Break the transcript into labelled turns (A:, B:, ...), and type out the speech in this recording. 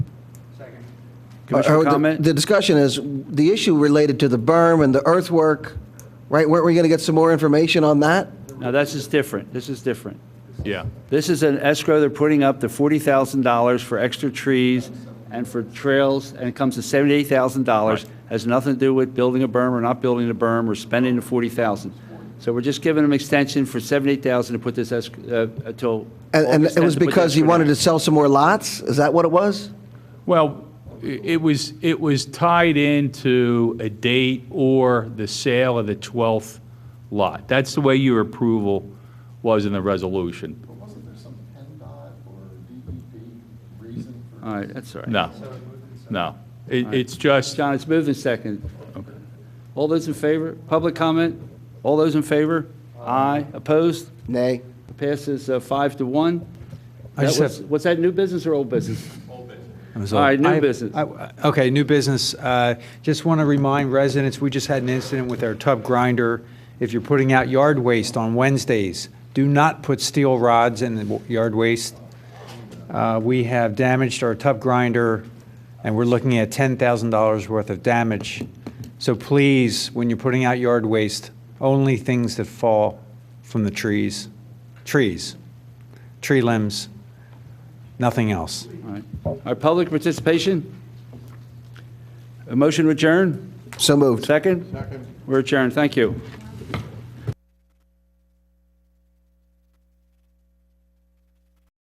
A: Second.
B: Uh,
C: Commissioner
B: the-
C: comment?
B: The discussion is the issue related to the berm and the earthwork, right? Weren't we going to get some more information on that?
C: Now, this is different. This is different.
D: Yeah.
C: This is an escrow they're putting up to $40,000 for extra trees and for trails, and it comes to $78,000. Has nothing to do with building a berm or not building a berm or spending the 40,000. So we're just giving them extension for 78,000 to put this, esc- uh, until.
B: And, and
C: August
B: it was
C: 10th to put
B: because
C: this
B: he
C: for
B: wanted
C: them.
B: to sell some more lots? Is that what it was?
D: Well, i- it was, it was tied into a date or the sale of the 12th lot. That's the way your approval was in the resolution.
E: But wasn't there some PennDOT or DEP reason for?
C: All right, that's all right.
D: No, no. It- It's just,
C: John, it's moved and seconded. All those in favor? Public comment? All those in favor? Aye. Opposed?
B: Nay.
C: Passes uh, five to one.
A: I
C: That
A: just
C: was-
A: have-
C: Was that new business or old business?
A: All
C: All right, new business.
A: Okay, new business. Uh, Just want to remind residents, we just had an incident with our tub grinder. If you're putting out yard waste on Wednesdays, do not put steel rods in the w- yard waste. Uh, We have damaged our tub grinder, and we're looking at $10,000 worth of damage. So please, when you're putting out yard waste, only things that fall from the trees, trees, tree limbs, nothing else.
C: All right. Our public participation? A motion to adjourn?
B: So moved.
C: Second? Second. We're adjourned. Thank you.